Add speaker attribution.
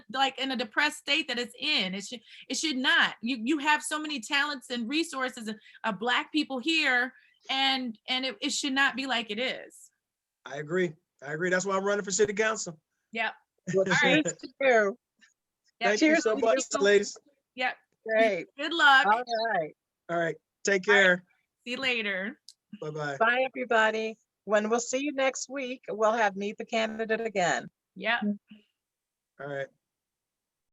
Speaker 1: like in a depressed state that it's in. It should it should not. You you have so many talents and resources of uh, black people here, and and it, it should not be like it is.
Speaker 2: I agree. I agree. That's why I'm running for city council.
Speaker 1: Yep.
Speaker 3: Well,
Speaker 1: right.
Speaker 3: cheers to you.
Speaker 1: Yeah,
Speaker 2: Thank you
Speaker 3: cheers
Speaker 2: so
Speaker 3: to
Speaker 2: much,
Speaker 3: you.
Speaker 2: ladies.
Speaker 1: Yep.
Speaker 3: Great.
Speaker 1: Good luck.
Speaker 3: All right.
Speaker 2: All right, take
Speaker 1: All right.
Speaker 2: care.
Speaker 1: See you later.
Speaker 2: Bye-bye.
Speaker 3: Bye, everybody. When we'll see you next week, we'll have Meet the Candidate again.
Speaker 1: Yep.
Speaker 2: All right.